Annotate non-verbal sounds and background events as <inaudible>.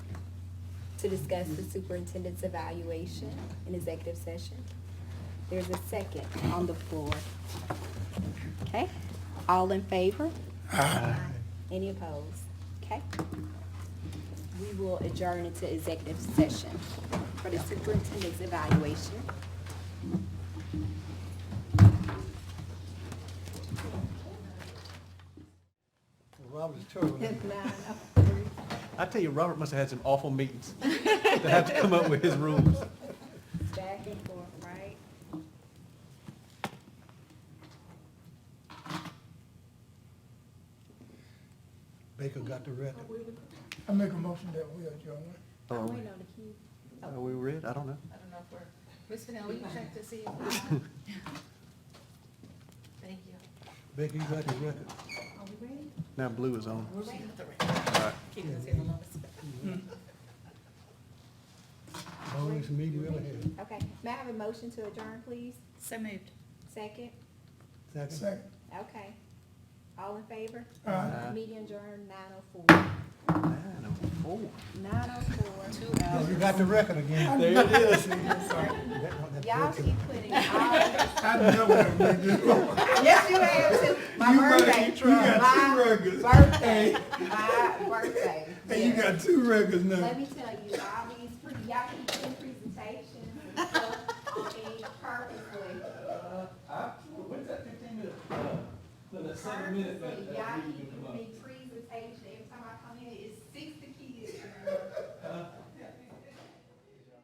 to discuss the superintendent's evaluation in executive session. There's a second on the floor. Okay, all in favor? Any opposed? Okay. We will adjourn into executive session for the superintendent's evaluation. Robert's terrible. <laughs> I tell you, Robert must have had some awful meetings to have to come up with his rules. Back and forth, right? Baker got the record. I make a motion that we adjourn. Are Oh, we- on the key. are we red? I don't know. I don't know if we're, Mr. Hill, will you check to see? if we're on? Thank you. Baker, you got the record. Are we ready? Now blue is on. We're ready. Keep us here the longest. Longest meeting we ever had. Okay, may I have a motion to adjourn, please? So moved. Second? Second. Second. Okay. All in favor? Aye. Aye. Meeting adjourned nine oh four. Nine oh four. Nine oh four. Two You got the record again. There it <laughs> is. That one, that Y'all record. keep putting all, <laughs> I never have made this. You <laughs> yes, you have too. My got, birthday. you got two My records. <laughs> birthday, my birthday. Hey, you Yes. got two records now. Let me tell you, all these, pre- y'all keep doing presentations and stuff, and purposely. When's that fifteen minute, the seven minute? Y'all keep giving me presentations, every time I come in, it's